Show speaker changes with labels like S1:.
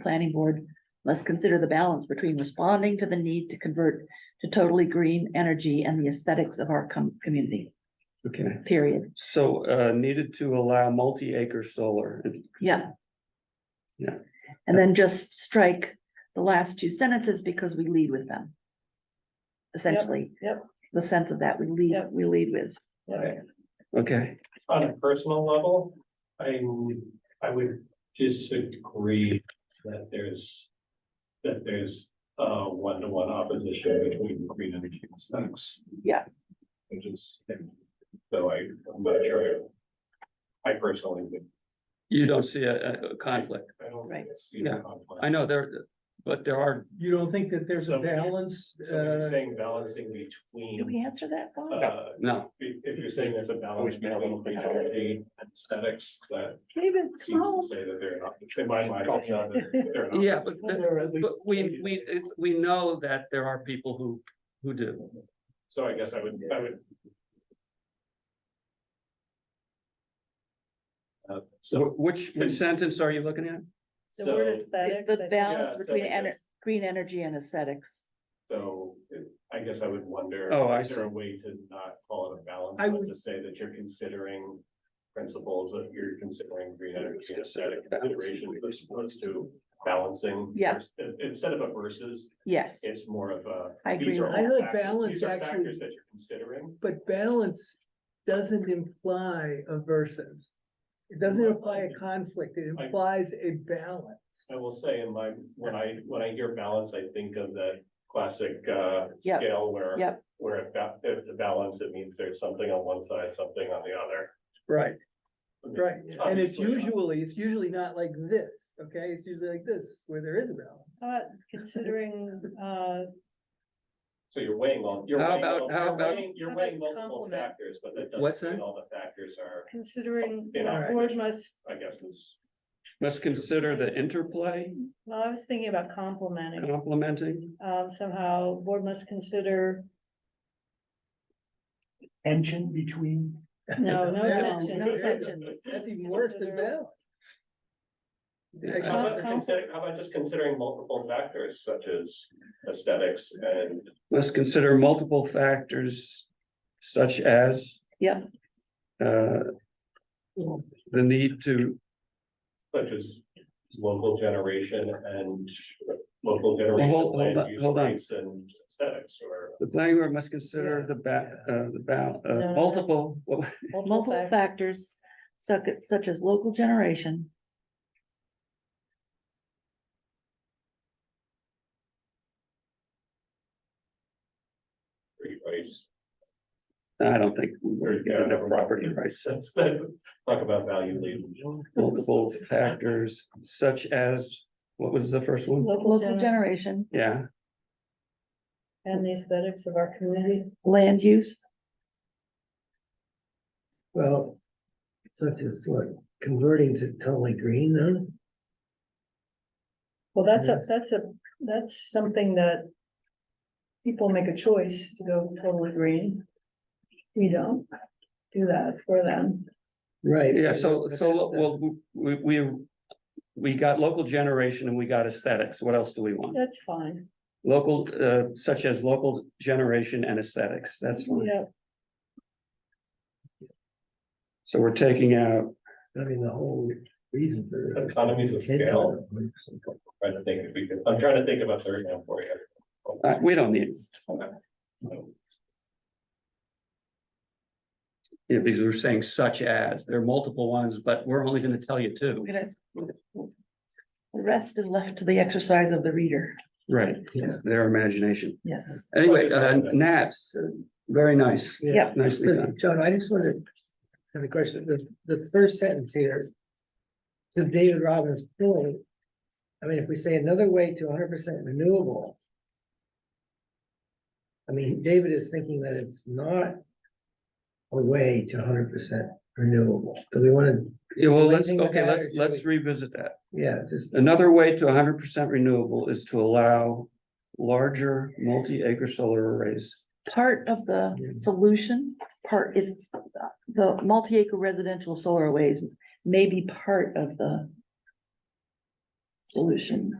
S1: planning board must consider the balance between responding to the need to convert to totally green energy and the aesthetics of our com- community,
S2: Okay,
S1: period.
S2: so uh needed to allow multi-acre solar.
S1: Yeah.
S2: Yeah.
S1: And then just strike the last two sentences because we lead with them. Essentially.
S3: yep.
S1: The sense of that we lead,
S3: Yep.
S1: we lead with.
S3: Yeah.
S2: Okay,
S4: On a personal level, I, would- I would disagree that there's, that there's uh one-to-one opposition between green energy and stocks.
S1: Yeah.
S4: Which is, so I, I'm not sure. I personally would.
S2: you don't see a a- a conflict.
S4: I don't
S1: Right.
S4: see the
S2: Yeah,
S4: conflict.
S2: I know there, but there are,
S3: You don't think that there's a
S4: So-
S3: balance?
S4: So when
S3: uh,
S4: you're saying balancing
S1: Did
S4: between,
S1: we answer that? Bob?
S4: uh,
S2: no,
S4: if if you're saying there's a balance between green energy and aesthetics, that
S1: David,
S4: seems to
S5: Oh.
S1: no.
S4: say that they're not, in my mind, they're not- they're not.
S2: yeah, but
S3: Well, there are at least-
S2: but we we we know that there are people who who do.
S4: So I guess I would, I would. Uh, So.
S2: Wh- Which which sentence are you looking at?
S6: The word
S4: so-
S6: aesthetics.
S1: The
S6: I think-
S1: balance
S4: Yeah,
S1: between
S4: aesthetics.
S1: ener- green energy and aesthetics.
S4: So I guess I would wonder.
S2: Oh, I
S4: Is there a way to not call it a balance,
S3: I
S4: but
S3: would-
S4: to say that you're considering principles, that you're considering green energy and aesthetic considerations as opposed to balancing?
S1: Yeah.
S4: vers- in- Instead of a versus,
S1: Yes,
S4: it's more of a.
S1: I agree
S4: these are
S3: that.
S1: with
S4: all
S3: I heard
S4: factors-
S3: balance
S4: these are
S3: actually-
S4: Factors that you're considering.
S3: But balance doesn't imply a versus. It doesn't imply a conflict, it
S4: I-
S3: implies a balance.
S4: I will say in my, when I, when I hear balance, I think of that classic uh
S1: Yep.
S4: scale where.
S1: Yep.
S4: Where it ba- if the balance, it means there's something on one side, something on the other.
S3: Right. Right, and it's
S4: Obviously not.
S3: usually, it's usually not like this, okay? It's usually like this, where there is a balance.
S6: But considering, uh,
S4: So you're weighing all, you're
S2: How
S4: weighing,
S2: about-
S4: all-
S2: how
S4: you're
S2: about-
S4: weighing, you're
S6: How
S4: weighing
S6: about
S4: multiple
S6: complement?
S4: factors, but that
S2: What's
S4: doesn't mean
S2: that?
S4: all the factors are,
S6: considering,
S4: In
S6: the
S4: our-
S6: board must,
S4: I guess, is.
S2: Let's consider the interplay
S6: well, I was thinking about complementing,
S2: complementing.
S6: um, somehow, board must consider,
S3: Tension between.
S6: no, no
S3: Yeah.
S6: tension.
S1: No tension.
S3: That's even worse than
S6: Consider-
S3: balance.
S4: How
S6: Con-
S4: about consider, how about just considering multiple factors such as aesthetics and
S2: Let's consider multiple factors such as.
S1: Yep.
S2: Uh. The need to,
S4: such as local generation and local
S2: hold-
S4: generation
S2: hold
S4: land
S2: on-
S4: use
S2: hold on.
S4: rights and aesthetics or.
S2: the planning board must consider the ba- uh, the ba-
S6: No,
S2: uh,
S6: no, no.
S2: multiple, well,
S1: multiple
S6: fac-
S1: factors such, such as local generation.
S4: free rights.
S2: I don't think we're gonna have property rights.
S4: That's the, talk about value leading.
S2: Multiple factors such as, what was the first one?
S6: Local
S1: Local
S6: generation
S1: generation,
S2: Yeah,
S6: and the aesthetics of our community.
S1: land use,
S5: Well, such as what, converting to totally green then?
S6: Well, that's a, that's a, that's something that people make a choice to go totally green. We don't do that for them.
S5: Right.
S2: yeah, so,
S5: but
S2: so,
S5: that's the-
S2: well, we, we, we got local generation and we got aesthetics. What else do we want?
S6: That's fine.
S2: Local, uh, such as local generation and aesthetics, that's one.
S6: Yeah,
S2: So we're taking out,
S5: I mean, the whole reason for.
S4: Economies of scale. Trying to think if we could, I'm trying to think of a third now for you.
S2: uh, we don't need, it because we're saying such as, there are multiple ones, but we're only gonna tell you two.
S1: we're gonna. The rest is left to the exercise of the reader,
S2: Right, it's their imagination.
S1: yes.
S2: Anyway, uh, Nat, very nice,
S1: Yeah.
S2: nicely done.
S5: John, I just wanted, to have a question, the, the first sentence here. To David Robbins' point, I mean, if we say another way to hundred percent renewable. I mean, David is thinking that it's not a way to hundred percent renewable, do we wanna,
S2: Yeah, well, let's,
S5: Anything with
S2: okay,
S5: that,
S2: let's,
S5: or should
S2: let's revisit that.
S5: yeah, just,
S2: Another way to hundred percent renewable is to allow larger multi-acre solar arrays.
S1: Part of the
S5: Yeah.
S1: solution, part is the multi-acre residential solar arrays may be part of the. solution.